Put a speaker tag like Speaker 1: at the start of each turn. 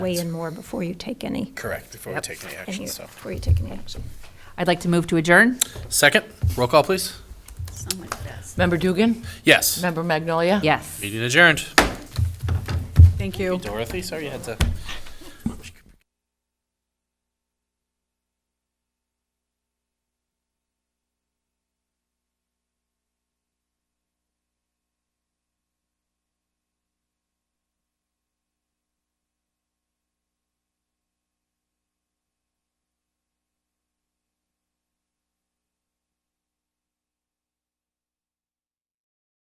Speaker 1: weigh in more before you take any,
Speaker 2: Correct, before we
Speaker 3: Yep.
Speaker 2: take any
Speaker 1: any-
Speaker 2: action, so.
Speaker 1: before you take any action.
Speaker 3: I'd like to move to adjourn.
Speaker 2: Second, roll call, please.
Speaker 4: Member Dugan?
Speaker 2: Yes.
Speaker 4: Member Magnolia?
Speaker 3: Yes.
Speaker 2: Meeting adjourned.
Speaker 4: Thank you.
Speaker 2: Dorothy, sorry you had to